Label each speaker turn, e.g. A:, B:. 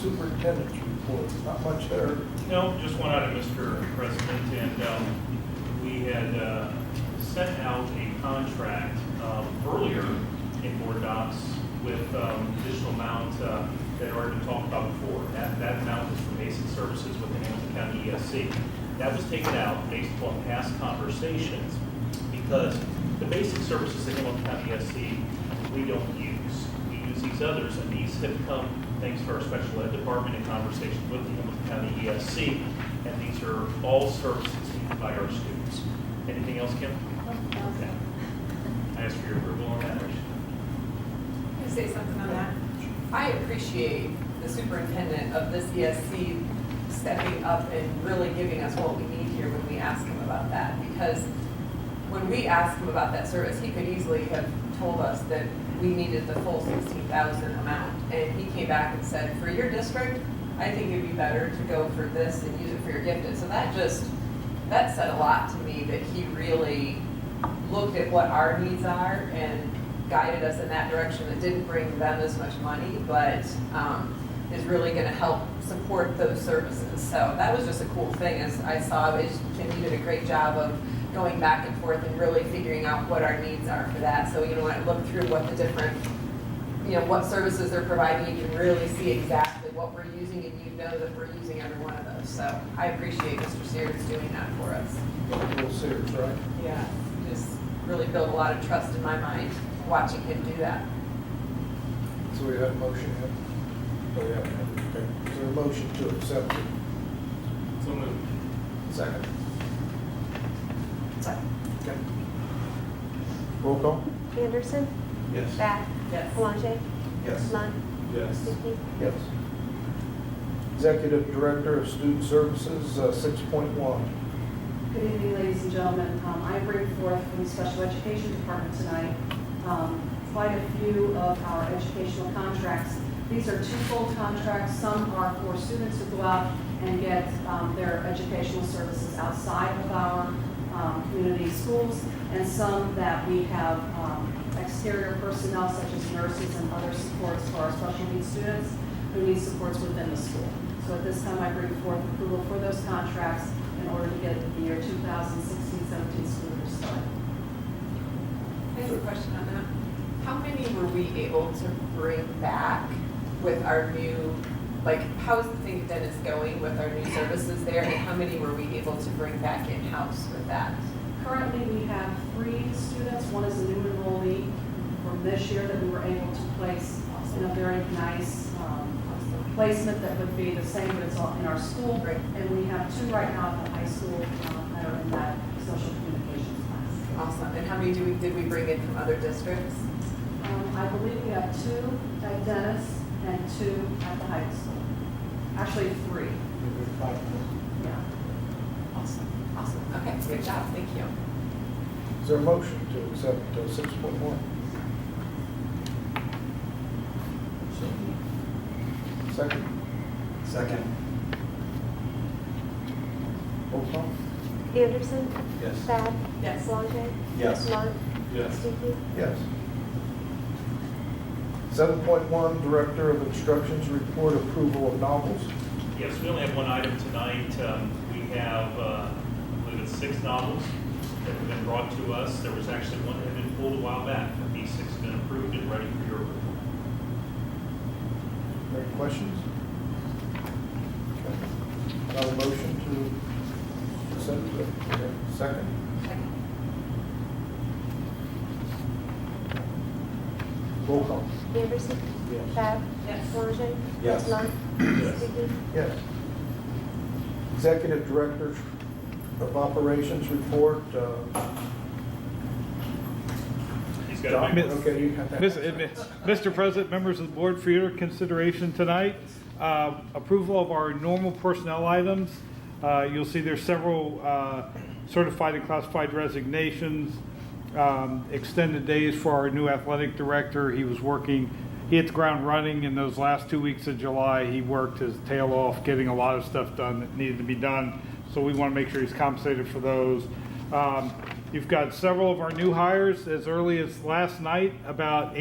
A: superintendent's report, not much there.
B: No, just one item, Mr. President, and um, we had uh, sent out a contract um, earlier in board docs with um, additional amount uh, that had already been talked about before. That, that amount is for basic services with the Hamilton County ESC. That was taken out based upon past conversations because the basic services in Hamilton County ESC, we don't use. We use these others, and these have come thanks to our special ed department in conversation with the Hamilton County ESC, and these are all services needed by our students. Anything else, Kim? Okay. I ask for your approval on that.
C: Can I say something on that? I appreciate the superintendent of this ESC stepping up and really giving us what we need here when we ask him about that. Because when we asked him about that service, he could easily have told us that we needed the full sixteen thousand amount. And he came back and said, for your district, I think it'd be better to go for this and use it for your gifted. So that just, that said a lot to me that he really looked at what our needs are and guided us in that direction that didn't bring them as much money, but um, is really going to help support those services. So that was just a cool thing as I saw, is Kim, you did a great job of going back and forth and really figuring out what our needs are for that. So, you know, when I look through what the different, you know, what services they're providing, you can really see exactly what we're using and you know that we're using every one of those. So I appreciate Mr. Sears doing that for us.
A: Little Sears, right?
C: Yeah, just really built a lot of trust in my mind watching him do that.
A: So we have a motion yet? Oh, yeah. Okay. Is there a motion to accept it?
B: So moved.
A: Second.
C: So,
A: Okay. Roll call?
D: Anderson?
E: Yes.
D: Bath?
C: Yes.
D: Palage?
E: Yes.
D: Lund?
E: Yes.
D: Stuckey?
A: Yes. Executive Director of Student Services, uh, six point one.
F: Good evening, ladies and gentlemen. Um, I bring forth from the Special Education Department tonight um, quite a few of our educational contracts. These are twofold contracts. Some are for students who go out and get um, their educational services outside of our um, community schools, and some that we have um, exterior personnel such as nurses and other supports for our special needs students who need supports within the school. So at this time, I bring forth approval for those contracts in order to get the year 2016-17 school year started.
C: I have a question on that. How many were we able to bring back with our new, like, how's the thing that is going with our new services there? And how many were we able to bring back in-house with that?
F: Currently, we have three students, one is a new enrollee from this year that we were able to place in a very nice um, placement that would be the same, but it's all in our school. And we have two right now at the high school um, that are in that social communications class.
C: Awesome. And how many do we, did we bring in from other districts?
F: Um, I believe we have two at Dennis and two at the high school. Actually, three, yeah.
C: Awesome. Awesome. Okay, good job. Thank you.
A: Is there a motion to accept uh, six point one? Second.
E: Second.
A: Roll call?
D: Anderson?
E: Yes.
D: Bath?
C: Yes.
D: Palage?
E: Yes.
D: Lund?
E: Yes.
D: Stuckey?
A: Yes. Seven point one, Director of Instruction's report approval of novels.
B: Yes, we only have one item tonight. Um, We have, uh, I believe it's six novels that have been brought to us. There was actually one that had been pulled a while back, but these six have been approved and ready for your approval.
A: Any questions? Okay. Not a motion to accept it. Okay. Second. Roll call?
D: Anderson?
A: Yes.
D: Bath?
C: Yes.
D: Palage?
E: Yes.
D: Lund?
E: Yes.
D: Stuckey?
A: Yes. Executive Director of Operations report. uh,
B: He's got a
A: John?
B: big-
A: Okay, you have that.
G: Miss- eh, Mr. President, members of the board, for your consideration tonight, uh, approval of our normal personnel items. Uh, You'll see there's several uh, certified and classified resignations, um, extended days for our new athletic director. He was working, he hit the ground running in those last two weeks of July. He worked his tail off, getting a lot of stuff done that needed to be done. So we want to make sure he's compensated for those. Um, You've got several of our new hires as early as last night, about